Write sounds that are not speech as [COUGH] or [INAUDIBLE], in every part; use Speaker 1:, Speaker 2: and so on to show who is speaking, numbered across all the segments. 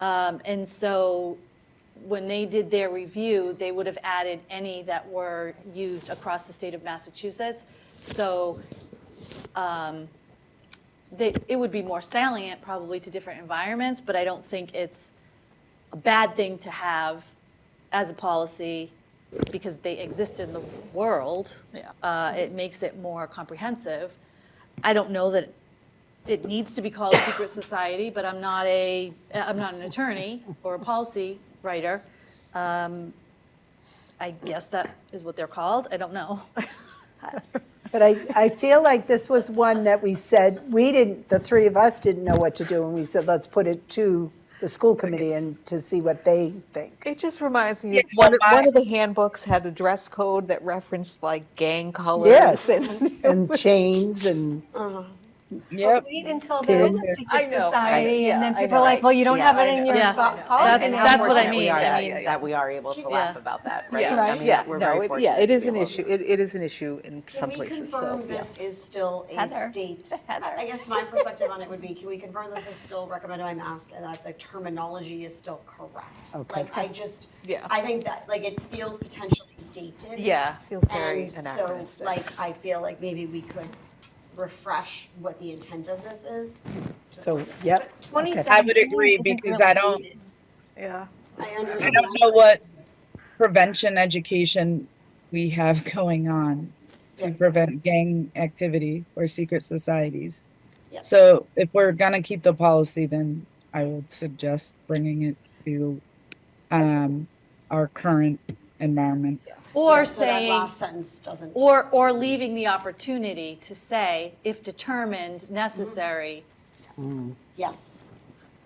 Speaker 1: Um, And so when they did their review, they would have added any that were used across the state of Massachusetts. So um, they, it would be more salient probably to different environments, but I don't think it's a bad thing to have as a policy because they exist in the world.
Speaker 2: Yeah.
Speaker 1: Uh, It makes it more comprehensive. I don't know that it needs to be called secret society, but I'm not a, I'm not an attorney or a policy writer. Um, I guess that is what they're called. I don't know.
Speaker 3: But I, I feel like this was one that we said, we didn't, the three of us didn't know what to do, and we said, let's put it to the school committee and to see what they think.
Speaker 2: It just reminds me, of one, of- one of the handbooks had a dress code that referenced like gang colors.
Speaker 3: Yes, [LAUGHS]
Speaker 2: and-
Speaker 3: and chains and,
Speaker 4: Yep.
Speaker 5: Wait until there is a
Speaker 2: I
Speaker 5: secret
Speaker 2: know, I-
Speaker 5: society, and then
Speaker 6: yeah, I
Speaker 5: people are
Speaker 6: know.
Speaker 5: like, well, you don't
Speaker 6: Yeah,
Speaker 5: have it
Speaker 6: I
Speaker 5: in
Speaker 6: know.
Speaker 5: your
Speaker 1: Yeah.
Speaker 5: po-
Speaker 1: Yeah.
Speaker 5: policy.
Speaker 1: That's-
Speaker 6: Oh, And
Speaker 5: now."
Speaker 6: how
Speaker 1: that's what I
Speaker 6: fortunate we
Speaker 1: mean,
Speaker 6: are
Speaker 1: yeah,
Speaker 6: that-
Speaker 1: yeah,
Speaker 6: That we are able to laugh about that, right?
Speaker 2: Yeah.
Speaker 6: I
Speaker 5: Right.
Speaker 6: mean,
Speaker 2: Yeah,
Speaker 6: we're
Speaker 2: no,
Speaker 6: very
Speaker 2: it- yeah,
Speaker 6: fortunate
Speaker 2: it
Speaker 6: to
Speaker 2: is
Speaker 6: be
Speaker 2: an
Speaker 6: able
Speaker 2: issue,
Speaker 6: to-
Speaker 2: it, it is an issue in some
Speaker 7: Can we
Speaker 2: places, so,
Speaker 7: confirm
Speaker 2: yeah.
Speaker 7: this is still a
Speaker 6: Heather.
Speaker 7: state?
Speaker 6: [LAUGHS] Heather.
Speaker 7: I guess my perspective on it would be, can we confirm this is still recommended by mask and that the terminology is still correct?
Speaker 3: Okay.
Speaker 7: Like, I just,
Speaker 2: Yeah.
Speaker 7: I think that, like, it feels potentially dated.
Speaker 2: Yeah, feels very
Speaker 7: And so,
Speaker 2: anachronistic.
Speaker 7: like, I feel like maybe we could refresh what the intent of this is.
Speaker 3: so, yep. okay.
Speaker 4: I would agree because I don't,
Speaker 2: Yeah.
Speaker 7: I
Speaker 4: I
Speaker 7: understand.
Speaker 4: don't know what prevention education we have [LAUGHS] going on to
Speaker 7: Yeah.
Speaker 4: prevent gang activity or secret societies.
Speaker 7: Yeah.
Speaker 4: So if we're gonna keep the policy, then I would suggest bringing it to um, our current environment.
Speaker 1: Or
Speaker 7: So that
Speaker 1: saying,
Speaker 7: last sentence doesn't.
Speaker 1: or, or leaving the opportunity to say, if determined necessary,
Speaker 7: Yes.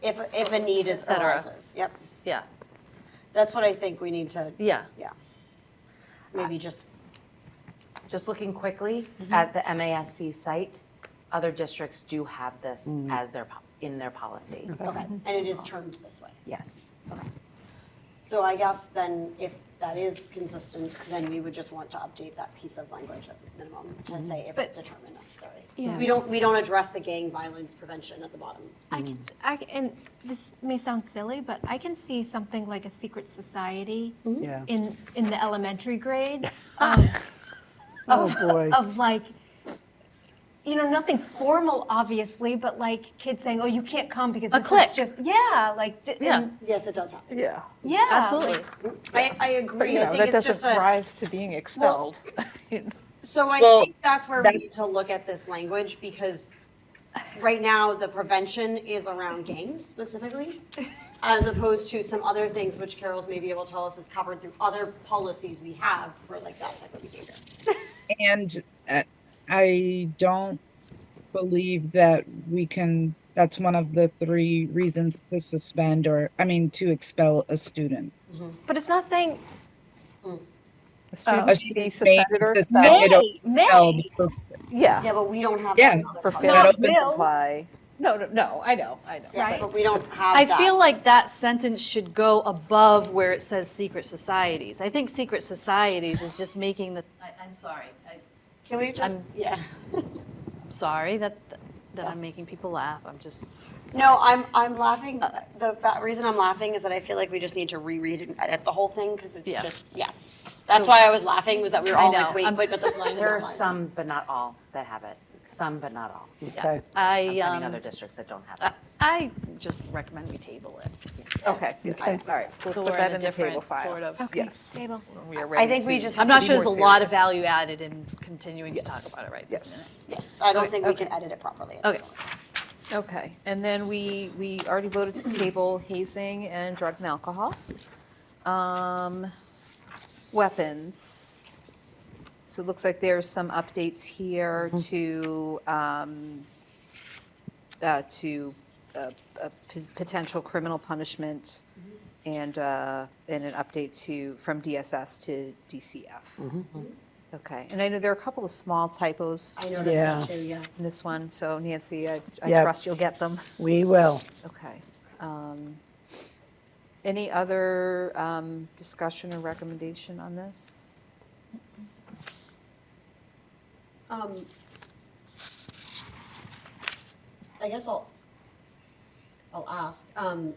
Speaker 7: If, if a need is
Speaker 1: Et cetera.
Speaker 7: arises, yep.
Speaker 2: Mm-hmm.
Speaker 1: yeah,
Speaker 7: That's what I think we need to,
Speaker 1: yeah.
Speaker 7: yeah. Maybe just
Speaker 6: Just looking quickly
Speaker 1: Mm-hmm.
Speaker 6: at the MASC site, other districts do have this
Speaker 2: Mm.
Speaker 6: as their, po- in their policy.
Speaker 7: Okay, and it is termed this way.
Speaker 6: Yes.
Speaker 7: Okay. So I guess then if that is consistent, then we would just want to update that piece of language at minimum to
Speaker 2: Mm-hmm.
Speaker 7: say if it's determined necessary.
Speaker 5: Yeah.
Speaker 7: We don't, we don't address the gang violence prevention at the bottom.
Speaker 5: I can, s- I c- and this may sound silly, but I can see something like a secret society
Speaker 1: Mm-hmm.
Speaker 3: Yeah.
Speaker 5: in, in the elementary grades.
Speaker 1: [LAUGHS]
Speaker 5: um,
Speaker 3: Oh,
Speaker 5: of-
Speaker 3: boy.
Speaker 5: Of like, you know, nothing formal, obviously, but like kids saying, oh, you can't come because
Speaker 1: A
Speaker 5: this
Speaker 1: clique.
Speaker 5: is just, yeah, like, th-
Speaker 1: Yeah.
Speaker 5: and-
Speaker 7: Yes, it does happen.
Speaker 2: Yeah,
Speaker 5: yeah.
Speaker 1: Absolutely.
Speaker 5: like-
Speaker 7: I, I
Speaker 2: but
Speaker 7: agree.
Speaker 2: you
Speaker 7: I
Speaker 2: know,
Speaker 7: think
Speaker 2: that
Speaker 7: it's just
Speaker 2: doesn't
Speaker 7: a,
Speaker 2: rise to being expelled.
Speaker 7: so I
Speaker 4: Well,
Speaker 7: think that's where we
Speaker 4: that's-
Speaker 7: need to look at this language because right now the prevention is around gangs specifically, as opposed to some other things which Carol's maybe able to tell us is covered through other policies we have for like that type of behavior.
Speaker 4: And uh, I don't believe that we can, that's one of the three reasons to suspend or, I mean, to expel a student.
Speaker 5: But it's not saying,
Speaker 2: A student may
Speaker 4: A
Speaker 2: be
Speaker 4: student may
Speaker 2: suspended or
Speaker 4: be
Speaker 2: expelled,
Speaker 4: suspended or
Speaker 5: May, may.
Speaker 4: expelled for-
Speaker 2: yeah,
Speaker 7: Yeah, but we don't have.
Speaker 4: Yeah,
Speaker 7: that other
Speaker 2: for
Speaker 7: part.
Speaker 2: failing
Speaker 4: Not
Speaker 2: to
Speaker 5: will.
Speaker 2: comply. No, no, no, I know, I know.
Speaker 7: Yeah,
Speaker 5: Right.
Speaker 7: But we don't have
Speaker 1: I
Speaker 7: that.
Speaker 1: feel like that sentence should go above where it says secret societies. I think secret societies is just making the, I, I'm sorry, I,
Speaker 7: Can we just,
Speaker 1: I'm-
Speaker 7: yeah.
Speaker 1: I'm sorry that, that I'm making people laugh. I'm just,
Speaker 7: No, I'm, I'm laughing. The fa- reason I'm laughing is that I feel like we just need to reread and edit the whole thing because it's
Speaker 1: Yeah.
Speaker 7: just, yeah. That's why I was laughing was that we were
Speaker 1: I
Speaker 7: all
Speaker 1: know,
Speaker 7: like, wait,
Speaker 1: I'm
Speaker 7: wait,
Speaker 1: s-
Speaker 7: but this line is
Speaker 6: There are
Speaker 7: not mine.
Speaker 6: some, but not all, that have it. Some, but not all.
Speaker 3: Okay.
Speaker 6: I'm
Speaker 1: I,
Speaker 6: finding other
Speaker 1: um,
Speaker 6: districts that don't have
Speaker 1: I-
Speaker 6: it.
Speaker 1: I just recommend we table it.
Speaker 2: Okay, all right, we'll
Speaker 1: So
Speaker 2: put
Speaker 1: we're
Speaker 2: that
Speaker 1: in a
Speaker 2: in the table
Speaker 1: different
Speaker 2: file.
Speaker 1: sort of.
Speaker 2: Yes.
Speaker 5: Table.
Speaker 2: when we are
Speaker 7: I
Speaker 2: ready
Speaker 7: think we
Speaker 2: to
Speaker 7: just.
Speaker 1: I'm
Speaker 7: have
Speaker 1: not
Speaker 7: to
Speaker 1: sure
Speaker 7: be
Speaker 1: there's a
Speaker 7: more
Speaker 1: lot of
Speaker 2: serious.
Speaker 1: value added in continuing to talk
Speaker 2: Yes.
Speaker 1: about it right this minute.
Speaker 2: Yes.
Speaker 7: serious. Yes, I don't
Speaker 1: Okay,
Speaker 7: think we
Speaker 1: okay.
Speaker 7: can edit it properly. at
Speaker 1: Okay.
Speaker 7: this
Speaker 2: Okay, and then we, we already voted to table hazing and drug and alcohol. Um, Weapons. So it looks like there's some updates here to, um, uh, to uh, uh, p- potential criminal punishment and, uh, and an update to, from DSS to DCF. Okay, and I know there are a couple of small typos
Speaker 7: point. I
Speaker 3: Yeah.
Speaker 7: noticed that too, yeah.
Speaker 2: in this one, so Nancy, I I
Speaker 3: Yeah.
Speaker 2: trust you'll get them.
Speaker 3: We will.
Speaker 2: Okay. Um, Any other um, discussion or recommendation on this?
Speaker 7: Um, I guess I'll, I'll ask, um,